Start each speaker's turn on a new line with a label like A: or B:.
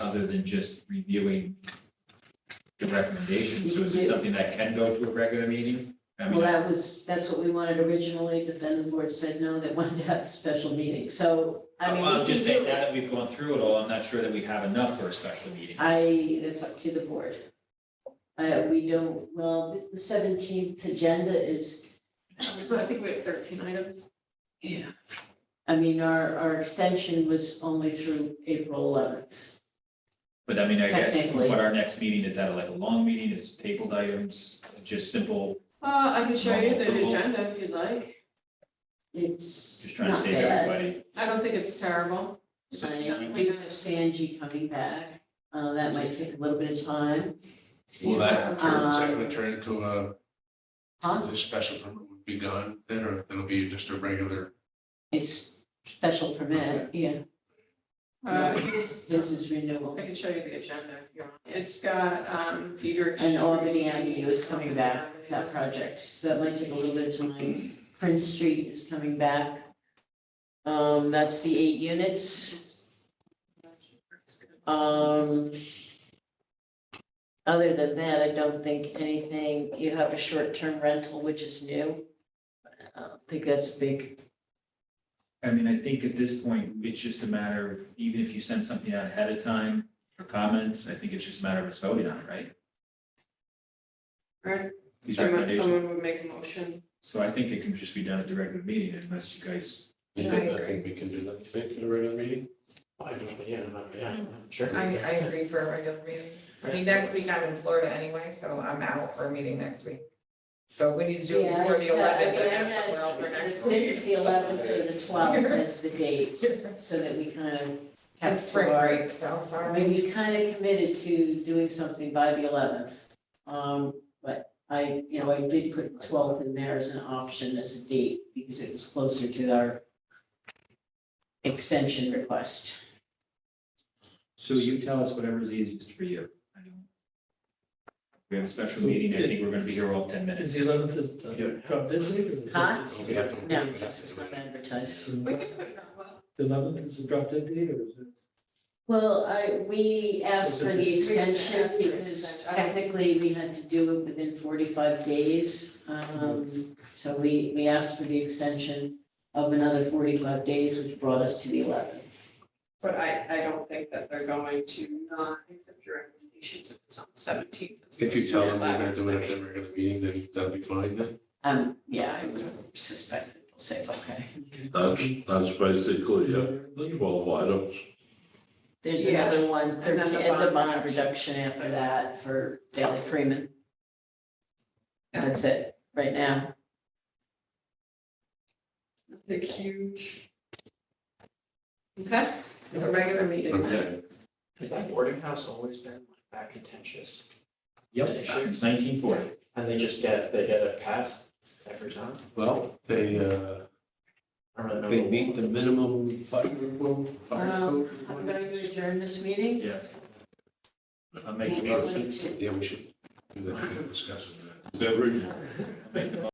A: other than just reviewing the recommendations? So is
B: We
A: it
B: do.
A: something that can go to a regular meeting? I
B: Well,
A: mean,
B: that was, that's what we wanted originally, but then the board said no, they wanted to have a special meeting, so, I mean. we
A: I'm just
B: can
A: saying,
B: do
A: now
B: it. Uh,
A: that we've gone through it all, I'm not sure that we have enough for a special meeting.
B: I, that's up to the board. Uh, we don't, well, the seventeenth agenda is,
C: So I think we have thirteen items.
B: yeah. I mean, our, our extension was only through April eleventh.
A: But I mean, I guess
B: Technically.
A: what our next meeting is, that like a long meeting, is tabled items, just simple,
C: Uh, I can show you the agenda if you'd like.
B: It's
A: just trying to
B: not
A: save
B: bad.
A: everybody.
C: I don't think it's terrible.
B: I- We have Sanji coming back, uh, that might take a little bit of time.
D: Will that
E: Uh,
D: turn,
B: Um,
D: second, turn into a,
B: Huh?
D: the special permit would be gone then, or it'll be just a regular?
B: It's special permit, yeah,
C: Uh, here's-
B: this is renewal.
C: I can show you the agenda if you want. It's got, um, Peter.
B: And Albany Avenue is coming back, that project, so that might take a little bit of time. Prince Street is coming back. Um, that's the eight units, um. Other than that, I don't think anything, you have a short-term rental, which is new. I don't think that's big,
A: I mean, I think at this point, it's just a matter of, even if you send something out ahead of time for comments, I think it's just a matter of us voting on it, right?
C: Right.
A: These
C: Someone
A: recommendations.
C: someone would make a motion.
A: So I think it can just be done at the regular meeting unless you guys,
D: Is
E: Yeah, I
D: that
E: agree.
D: nothing we can do that, you think, in a regular meeting? I don't, yeah, yeah, sure.
E: Mm, I, I agree for a regular meeting. I mean, next week I'm in Florida anyway, so I'm out for a meeting next week. So we need to do it
B: Yeah,
E: before the
B: so, I
E: eleventh, but
B: mean, I
E: that's
B: had-
E: somewhere else for
B: It's
E: next
B: been
E: week.
B: the eleventh or the twelfth as the dates, so that we kind of. have
E: It's spring
B: to our-
E: break, so
B: I
E: sorry.
B: mean, we kind of committed to doing something by the eleventh. Um, but I, you know, I did put twelfth in there as an option as a date because it was closer to our extension request.
A: so you tell us whatever's easiest for you. I don't- We have a special meeting, I think we're gonna be here all ten minutes.
F: Is the eleventh a drop dead date? or is it
B: Huh?
F: just-
D: We have to-
B: No, it's not advertised.
C: We can put it on, well,
F: The eleventh is a drop dead date or is it?
B: Well, I, we asked for the extension because technically we had to do it within forty-five days. Um, so we, we asked for the extension of another forty-five days, which brought us to the eleventh.
C: but I, I don't think that they're going to not accept your recommendations if it's on the seventeenth.
D: If you tell them we're gonna do it at the regular meeting, then that'll be fine then?
B: Um, yeah, I would suspect people say, okay,
G: That's, that's basically it, the twelve items.
B: there's
C: Yeah.
B: another one,
C: And then the
B: 13 it's a
C: bond
B: bond
C: reduction.
B: reduction after that for Daley Freeman.
C: Yeah.
B: That's it, right now.
C: The huge. Okay, a regular meeting then.
D: Okay,
H: Has that boarding house always been like that contentious?
A: Yep, since nineteen forty.
H: And they just get, they get it passed every time?
D: well, they, uh,
H: I don't
D: they
H: remember.
D: meet the minimum fire rule, fire
B: Um,
D: code.
B: I'm going to adjourn this meeting.
A: Yeah. I'll make a
B: Next
A: motion.
B: one, too.
D: Yeah, we should do that, discuss it.
G: Every
A: Make a motion